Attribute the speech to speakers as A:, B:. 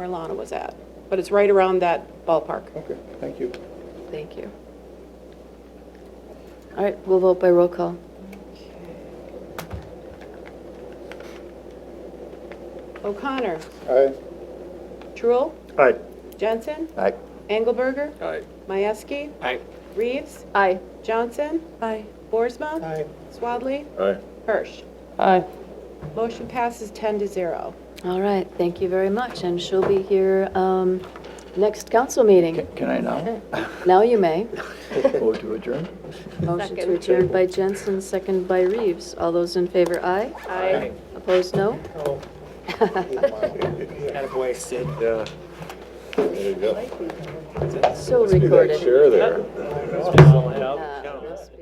A: where Lana was at, but it's right around that ballpark.
B: Okay, thank you.
A: Thank you.
C: All right, we'll vote by roll call.
A: O'Connor,
B: Aye.
A: Truul,
B: Aye.
A: Jensen,
B: Aye.
A: Engelberger,
B: Aye.
A: Mieski,
B: Aye.
A: Reeves,
C: Aye.
A: Johnson. Aye. Boersma.
B: Aye.
A: Swadley,
B: Aye.
A: Hirsch.
C: Aye.
A: Motion passes 10 to 0.
C: All right, thank you very much, and she'll be here um, next council meeting.
D: Can I now
C: Now you may.
D: go to adjourn?
C: Motion to adjourn by Jensen, second by Reeves. All those in favor, aye.
A: Aye.
C: Opposed, no?
E: Attaboy, Sid.
B: Yeah. There you go.
C: Still
B: Be that
C: recorded.
B: chair there.
E: Spell it out.
C: Uh,